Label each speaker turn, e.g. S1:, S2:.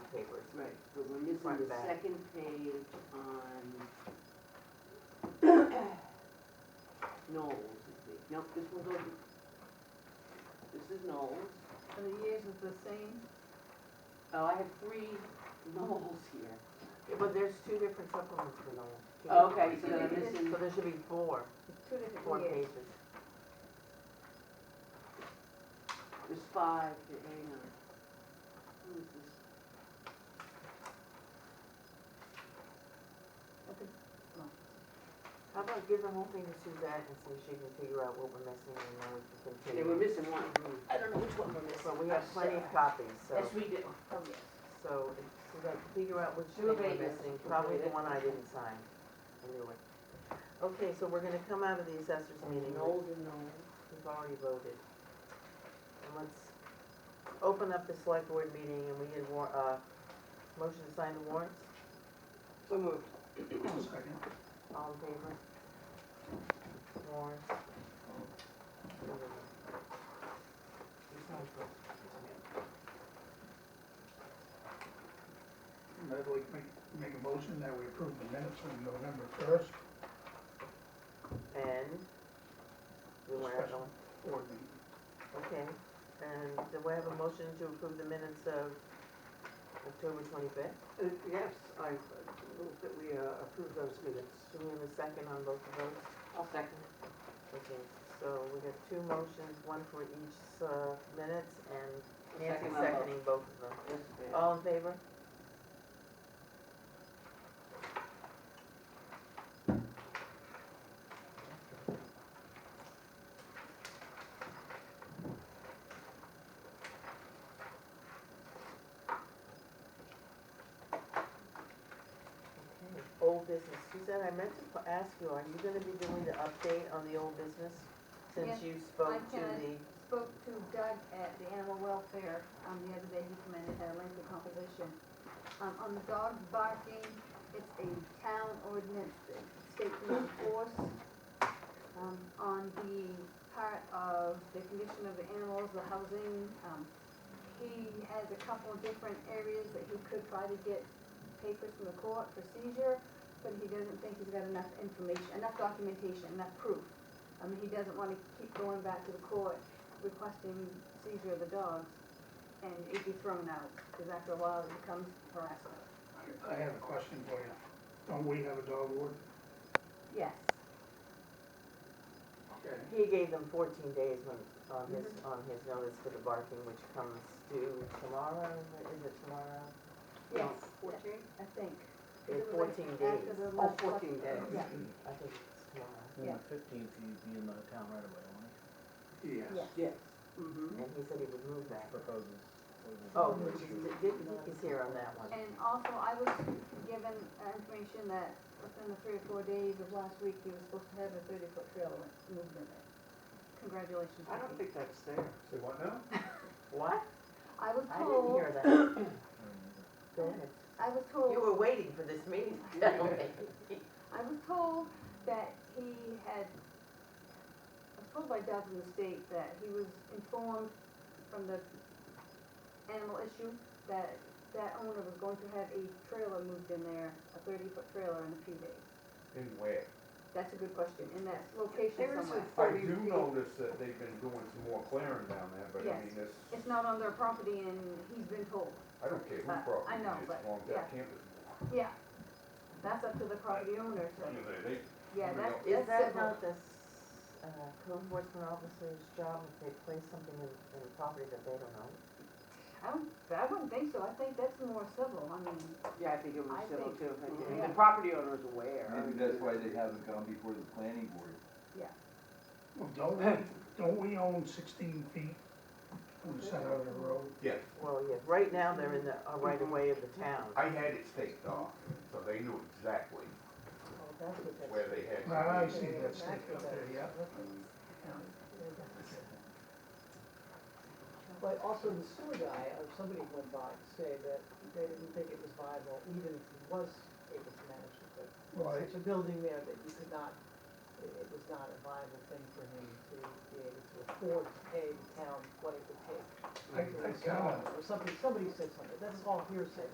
S1: Right, but we're missing
S2: Front
S1: the
S2: back.
S1: second page on Knowles, I think. Nope, this one goes, this is Knowles.
S3: And the years is the same,
S1: Oh, I have three Knowles here.
S2: But there's two different supplements for those. two
S1: Oh,
S2: different
S1: Okay,
S2: ones.
S1: so then I'm
S3: Maybe this-
S1: missing,
S2: So there should be four,
S3: two
S2: four
S3: different years.
S2: pages.
S1: there's five here, hang on. Who is this?
S3: Okay.
S2: How about give the whole thing to Suzette and see if she can figure out what we're missing and then we can
S1: They
S2: continue.
S1: were missing one.
S4: I don't know which one we're missing.
S2: So we have plenty of copies, so,
S1: Yes, we do.
S4: Oh, yes.
S2: so if Suzette can figure out which
S1: Two
S2: thing we're
S1: of eight is
S2: missing, probably the one
S1: completed.
S2: I didn't sign. I knew it. Okay, so we're gonna come out of the assessors meeting.
S1: Knowles and Knowles.
S2: We've already voted. And let's open up the select board meeting and we need war, uh, motion to sign the warrants,
S4: So moved.
S5: Second.
S2: all in favor? Warrants. You sign first.
S5: And I'd like to make, make a motion that we approve the minutes from November first,
S2: And, we want to,
S5: Discussion. board meeting.
S2: okay, and do we have a motion to approve the minutes of October twenty-fifth?
S6: Uh, Yes, I uh, move that we uh, approve those minutes.
S2: Do we have a second on both of those?
S1: I'll second it.
S2: Okay, so we got two motions, one for each uh, minutes, and
S1: I'll
S2: Nancy
S1: second Oh, that.
S2: seconding both of them.
S1: Yes, ma'am.
S2: All in favor? Okay, Old business, Suzanne, I meant to p- ask you, are you gonna be doing the update on the old business? Since
S3: Yes,
S2: you spoke to
S3: can.
S2: the,
S3: Spoke to Doug at the animal welfare, um, the other day, he commended our labor composition. Um, on the dog barking, it's a town ordinance that state can enforce. Um, on the part of the condition of the animals, the housing, um, he has a couple of different areas that he could try to get papers from the court for seizure, but he doesn't think he's got enough information, enough documentation, enough proof. I mean, he doesn't wanna keep going back to the court requesting seizure of the dogs and it'd be thrown out, cause after a while it becomes harassment.
S5: I- I have a question for you. Don't we have a dog ward?
S3: Yes,
S5: Okay.
S2: he gave them fourteen days when, on his, on his notice for the barking, which comes due tomorrow, is it tomorrow?
S3: yes,
S6: Fourteen?
S3: I think.
S2: Yeah,
S3: It was like
S2: 14
S3: After
S2: days.
S3: the
S6: Oh,
S3: last-
S6: fourteen days.
S3: Yeah,
S2: I think it's tomorrow.
S3: Yeah.
S7: Well, the fifteenth, you'd be in the town right away, won't you?
S5: Yes.
S3: yeah.
S6: Yes. Mm-hmm.
S2: And he said he would move that.
S7: Proposes.
S2: Oh, which is, Dick Dick is here on that one.
S3: And also, I was given uh, information that within the three or four days of last week, he was supposed to have a thirty-foot trailer moved in there. Congratulations.
S6: I don't think
S3: Ricky.
S6: that's there.
S5: Say what now?
S2: What?
S3: I was
S2: I didn't
S3: told,
S2: hear that. Go ahead.
S3: I was told.
S2: Oh. You were waiting for this meeting to tell me.
S3: I was told that he had, I was told by Doug from the state that he was informed from the animal issue that that owner was going to have a trailer moved in there, a thirty-foot trailer in a few days.
S8: In where?
S3: That's a good question, in that location
S6: There is
S3: somewhere.
S6: a
S8: I
S6: thirty
S8: do
S6: feet.
S8: notice that they've been doing some more clearing down there, but I
S3: Yes.
S8: mean, this,
S3: It's not on their property and he's been told,
S8: I don't care who
S3: Uh, I
S8: property
S3: know,
S8: it is,
S3: but,
S8: as long as that campus.
S3: yeah. That's up to the property owner, so,
S8: I mean, they- they-
S3: yeah,
S8: Somebody
S3: that's,
S8: else.
S2: Is
S3: that's
S2: that
S3: civil.
S2: not the, s- uh, code enforcement officer's job if they place something in, in the property that they don't own?
S3: I don't, I wouldn't think so, I think that's more civil, I mean,
S1: Yeah, I think it was
S3: I
S1: civil
S3: think-
S1: too. I think-
S3: yeah.
S1: The property owner is aware.
S9: Maybe that's why they haven't gone before the planning board.
S5: Well, don't we, don't we own sixteen feet from the center of the road?
S8: Yeah,
S2: Well, yeah, right now they're in the, uh, right away of the town.
S8: I had it staked off, so they knew exactly
S2: Oh, that's what that's.
S8: where they had. to
S5: Well, I
S8: be.
S5: see that stick up there, yeah.
S10: But also the sewer guy, or somebody went by to say that they didn't think it was viable, even if he was able to manage it, but
S5: Right.
S10: such a building there that you could not, it it was not a viable thing for him to be able to afford to pay the town what it would take.
S5: I, I
S10: to
S5: kinda,
S10: install it, Or something, somebody said something, that's all hearsay,